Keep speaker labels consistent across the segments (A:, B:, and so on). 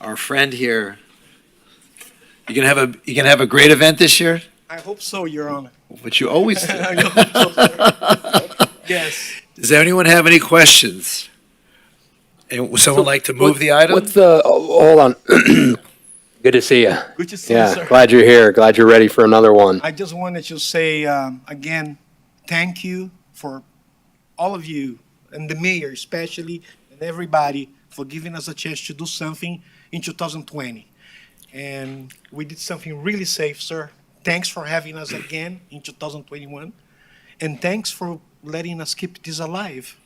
A: our friend here. You gonna have a, you gonna have a great event this year,
B: I hope so, Your Honor.
A: which you always do.
B: I hope so. Yes.
A: Does anyone have any questions? And would someone like to move the item?
C: What's the, oh, hold on. Good to see you.
B: Good to see you,
C: Yeah,
B: sir.
C: glad you're here. Glad you're ready for another one.
B: I just wanted to say um, again, thank you for all of you and the mayor especially and everybody for giving us a chance to do something in 2020. And we did something really safe, sir. Thanks for having us again in 2021. And thanks for letting us keep this alive.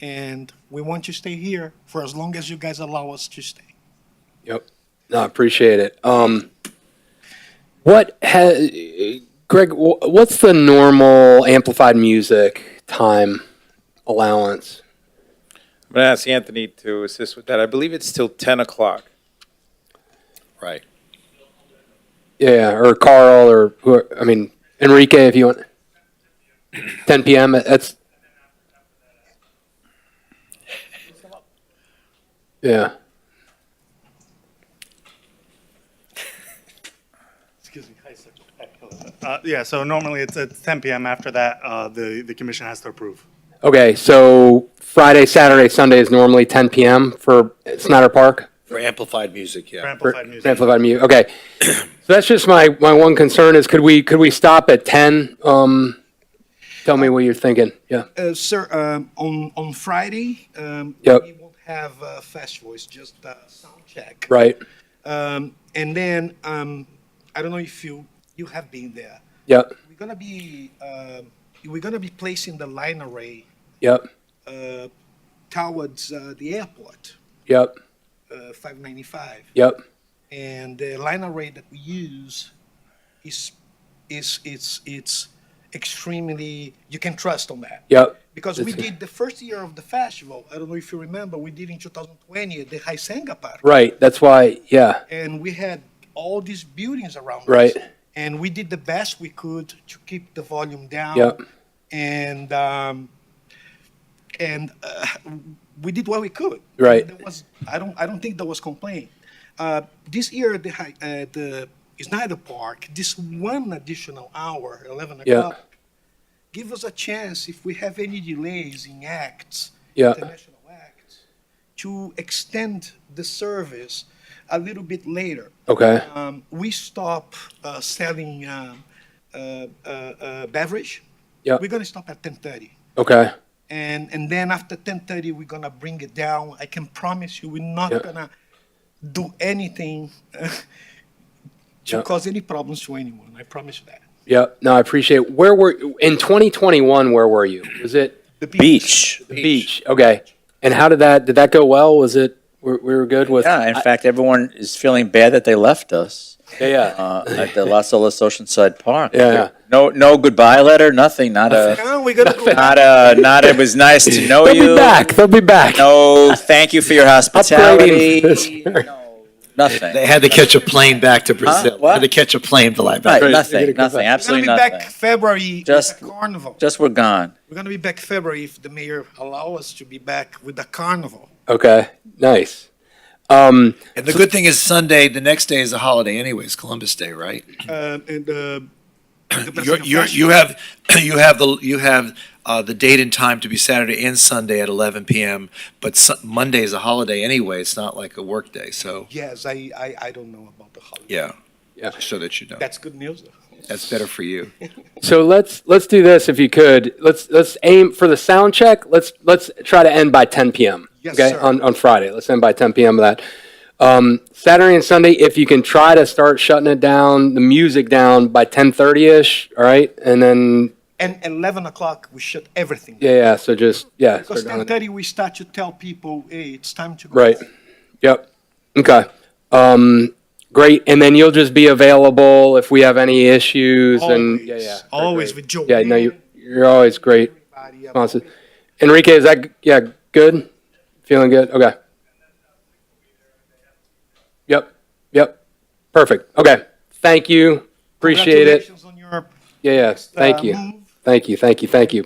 B: And we want to stay here for as long as you guys allow us to stay.
C: No, I appreciate it. Um, what has, Greg, wh- what's the normal amplified music time allowance?
D: I'm going to ask Anthony to assist with that. I believe it's till 10 o'clock.
C: Yeah, or Carl or who, I mean, Enrique, if you want. 10 p.m. That's. Yeah.
E: Excuse me. Hi, sir. Uh, Yeah, so normally it's at 10 PM. After that, uh, the, the commission has to approve.
C: Okay, so Friday, Saturday, Sunday is normally 10 p.m. for Snyder Park.
A: For amplified music,
E: For
A: yeah.
C: for
E: Amplified music.
C: Amplified music. Okay, so that's just my my one concern is could we could we stop at 10? Um, tell me what you're thinking. Yeah.
B: Uh, sir, um, on, on Friday, um,
C: Yep.
B: we won't have uh, fast voice, just uh, sound check.
C: Right.
B: Um, and then um, I don't know if you you have been there.
C: Yep.
B: We're gonna be um we're gonna be placing the line array
C: Yep.
B: uh, towards uh, the airport,
C: Yep.
B: uh, 595,
C: Yep.
B: and the line array that we use is is it's it's extremely you can trust on that.
C: Yep.
B: Because we
C: That's-
B: did the first year of the festival. I don't know if you remember, we did in 2020 at the Haisenga Park.
C: Right. That's why. Yeah.
B: And we had all these buildings around
C: Right.
B: us. And we did the best we could to keep the volume down.
C: Yep.
B: And um, and uh, we did what we could.
C: Right.
B: There was I don't I don't think there was complaint. Uh, this year the Hai- uh, the Snyder Park this one additional hour 11
C: Yeah.
B: o'clock give us a chance if we have any delays in acts,
C: Yeah.
B: international acts, to extend the service a little bit later.
C: Okay.
B: Um, we stop uh, selling um, uh, uh, uh, beverage.
C: Yeah.
B: We're gonna stop at ten thirty,
C: Okay.
B: and and then after ten thirty, we're gonna bring it down. I can promise you, we're not
C: Yeah.
B: gonna do anything uh, to
C: Yeah.
B: cause any problems to anyone. I promise you that.
C: Yep. No, I appreciate. Where were in 2021? Where were you? Was it
B: The
F: beach.
C: the beach? Okay. And how did that did that go well? Was it we we were good with?
F: Yeah, in fact, everyone is feeling bad that they left us
C: Yeah. Yeah.
F: uh, at the Los Olas Oceanside Park.
C: Yeah.
F: No, no goodbye letter, nothing, not a,
B: Now we're gonna go.
F: not a, not it was nice to know
C: They'll be
F: you.
C: back. They'll be back.
F: No, thank you for your hospitality.
C: Upgrading.
F: No, Nothing.
A: They had to catch a plane back to Brazil. They
F: What?
A: Had to catch a plane to like
F: Right,
A: back.
C: You're
F: nothing,
C: gonna come
F: nothing,
C: back.
B: We're gonna be
F: absolutely
B: back
F: nothing.
B: February
F: Just-
B: with a carnival.
F: Just we're gone.
B: We're gonna be back February if the mayor allow us to be back with the carnival.
C: Okay. Nice. Um,
A: And the good thing is Sunday, the next day is a holiday anyways, Columbus Day, right?
B: Uh, and uh, the
A: You're,
B: Pacific
A: you're, you
B: Festival.
A: have, you have the, you have, uh, the date and time to be Saturday and Sunday at eleven PM, but Su- Monday is a holiday anyway. It's not like a work day, so,
B: yes, I, I I don't know about the holiday.
A: yeah.
C: Yeah.
A: Just So that you know.
B: That's good news. though.
A: That's better for you.
C: so let's let's do this if you could. Let's let's aim for the sound check. Let's let's try to end by 10 p.m.
B: Yes,
C: okay,
B: sir.
C: on on Friday. Let's end by 10 p.m. of that. Um, Saturday and Sunday, if you can try to start shutting it down, the music down by 10:30 ish. All right, and then
B: And eleven o'clock we shut everything.
C: yeah, yeah. So just yeah.
B: Because
C: start down
B: ten
C: it.
B: thirty we start to tell people, hey, it's time to go.
C: Right. Yep. Okay. Um, great. And then you'll just be available if we have any issues and
B: Always,
C: yeah, yeah.
B: always with Joe.
C: Yeah, no, you you're always great. responses. Enrique, is that, yeah, good? Feeling good? Okay. Yep, yep. Perfect. Okay. Thank you. Appreciate it.
B: Congratulations on your,
C: Yeah, yeah. Thank
B: uh,
C: you.
B: move.
C: Thank you, thank you, thank you.